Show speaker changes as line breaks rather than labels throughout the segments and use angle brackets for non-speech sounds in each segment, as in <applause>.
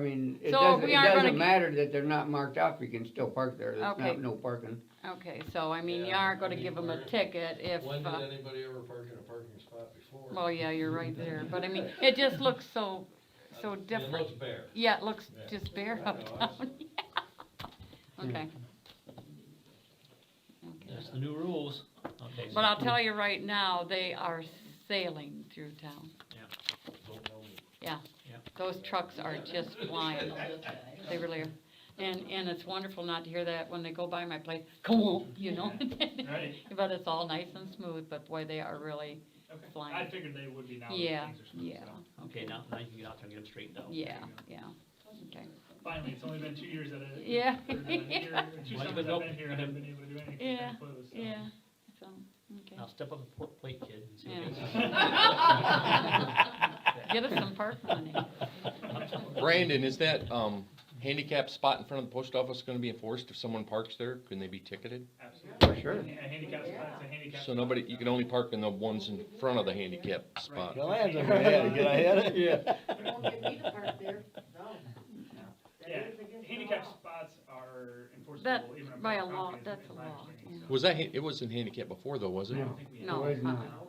I mean, it
So
doesn't,
we
it
aren't gonna
doesn't
g-
matter that they're not marked up, you can still park there, there's
Okay.
not, no parking.
Okay, so I mean, you
Yeah,
aren't
I
gonna
mean,
give them a
we're-
ticket if,
When
uh,
did anybody ever park in a parking spot before?
well, yeah, you're
<laughs>
right there, but I mean, it just looks so, so
It
different.
looks
<laughs>
bare.
Yeah, it looks
Yeah.
just bare
I know,
<laughs>
I
uptown. Okay.
That's the new rules. Okay, so-
But I'll tell you right now, they are sailing through town.
Don't
<laughs>
know me.
Those trucks are just flying. They really are. And, and it's wonderful not to hear that when they go by my place, "Kawoom," you know? <laughs>
Right,
But it's all nice and smooth, but boy, they are really
<laughs> okay. I
Flying.
figured they would be now. that
Yeah,
things are smooth,
yeah.
so.
Okay, now, now you can get out there and get them straightened out.
Yeah,
you
yeah, okay,
Finally, it's only been two years that I.
<laughs> Yeah.
or that I'm here, or Two
Why
summers I've
would
been
open-
here, I haven't been able to do anything. 'cause
Yeah,
I'm closed, so.
yeah, so, okay.
Now step up a port plate, kid, and see
Yeah.
what
<laughs> Get us some park money.
Brandon, is that, um, handicap spot in front of the post office gonna be enforced if someone parks there? Can they be ticketed?
Absolutely.
For sure.
A handicap spot, it's a handicap.
So nobody, you can only park in the ones in front of the handicap spot.
Land's a good idea, good
Yeah.
Won't get me to park there, no. That
Yeah,
is against the
handicap
law.
spots are
That-
enforceable even.
by
across
a
the
law-
country, is-
that's
is
a
my
law,
understanding,
yeah.
so.
Was that, ha- it wasn't handicap before though, was it?
I
No.
don't think we-
No,
There is
uh-uh,
not.
uh-uh.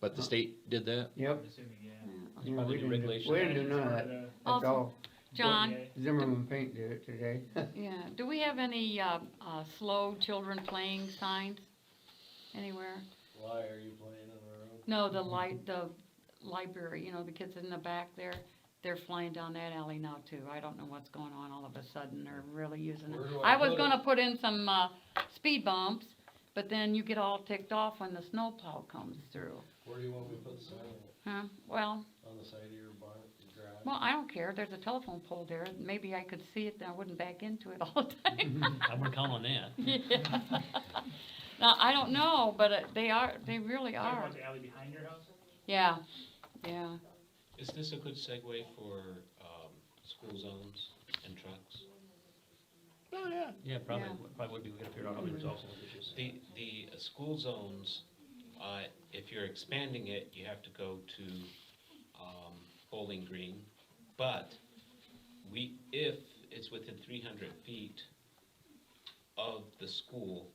But the state did that?
Yep,
I'm assuming, yeah.
Yeah, we
probably the
didn't do-
regulation.
We didn't do none of
Part
that,
of
that's
Awesome.
all,
the- uh,
John,
Yeah.
Zimmerman Paint did it today.
yeah, do we have any, uh, uh, slow children playing signs anywhere?
Why are you playing in the road?
No, the li- the library, you know, the kids in the back there, they're flying down that alley now too. I don't know what's going on all of a sudden, they're really using it.
Where do I
I was
put it?
gonna put in some, uh, speed bumps, but then you get all ticked off when the snowplow comes through,
Where do you want me to put the sign on,
huh? Well,
on the side of your barn, your garage?
Well, I don't care, there's a telephone pole there, maybe I could see it, and I wouldn't back into it <laughs> all the time.
I'm gonna count on that.
Yeah. <laughs> Now, I don't know, but uh, they are, they really
Talking
are,
about the alley behind your house?
yeah, yeah.
Is this a good segue for, um, school zones and trucks?
Yeah, probably,
Yeah.
probably would be, we gotta figure out how to resolve some of those issues.
Mm-hmm. The, the uh, school zones, uh, if you're expanding it, you have to go to, um, Bowling Green. But we, if it's within three hundred feet of the school,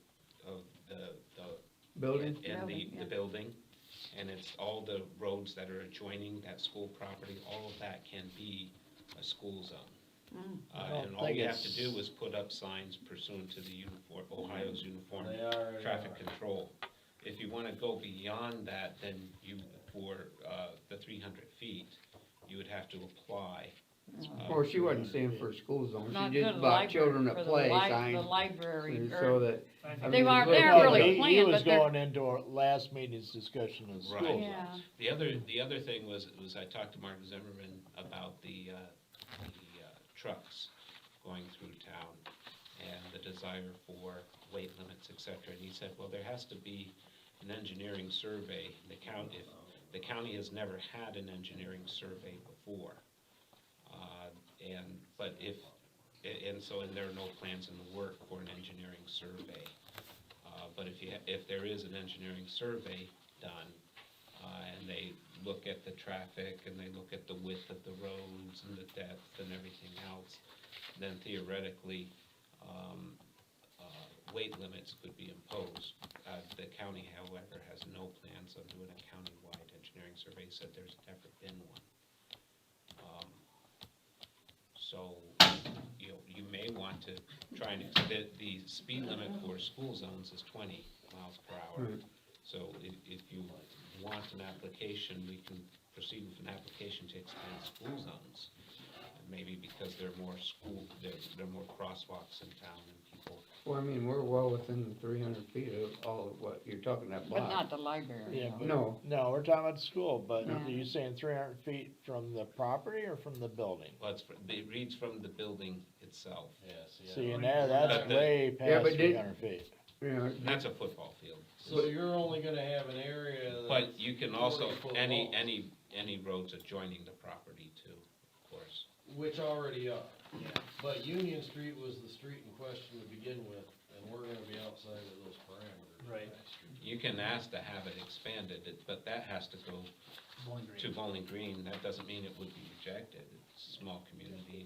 of the, the
Building,
And the,
Building, yeah.
the building, and it's all the roads that are adjoining that school property, all of that can be a school zone.
Mm.
I
Uh,
don't
and all
think
you have to
it's-
do is put up signs pursuant to the uniform, Ohio's uniform
They are, uh, they
traffic
are.
control. If you wanna go beyond that, then you, for, uh, the three hundred feet, you would have to apply. uh,
or she wasn't saying for a school zone,
Not
she
for
just
the
about
library-
children
for
that
the
play
li- The
signs,
library,
so
or,
that,
I
I
think-
they
mean,
are,
look
they're
at
really
it.
He
playing,
was
but they're,
going into our last meeting's discussion of
Right.
school.
yeah,
The other, the other thing was, was I talked to Mark Zimmerman about the, uh, the, uh, trucks going through town and the desire for weight limits, et cetera, and he said, well, there has to be an engineering survey, the county, if, the county has never had an engineering survey before. Uh, and, but if, a- and so, and there are no plans in the work for an engineering survey. Uh, but if you, ha- if there is an engineering survey done, uh, and they look at the traffic and they look at the width of the roads and the depth and everything else, then theoretically, um, uh, weight limits could be imposed. Uh, the county, however, has no plans on doing a countywide engineering survey, said there's never been one. Um, So, you know, you may want to try and, ex- the, the speed limit for school zones is twenty miles per hour.
Right.
So if, if you want an application, we can proceed with an application to expand school zones. And Maybe because there are more school, there, there are more crosswalks in town and people,
well, I mean, we're well within three hundred feet of all of what, you're talking that
but
block.
not the library.
Yeah,
no.
but-
No,
No, we're talking about the school, but
Yeah.
are you saying three hundred feet from the property or from the building?
well, it's, fr- it reads from the building itself.
Yes, yeah.
See, now that's
But the-
way
Yeah,
past
but
three
did-
hundred feet.
you know,
And That's a football field,
So you're only gonna have an area that's.
but you can also,
40 foot
any,
long,
any, any roads adjoining the property too, of course.
Which already are. But Union Street was the street in question to begin with, and we're gonna be outside of those parameters.
Right.
You can ask to have it expanded, it- but that has to go
Bowling green.
to Bowling Green, that doesn't mean it would be rejected, it's small community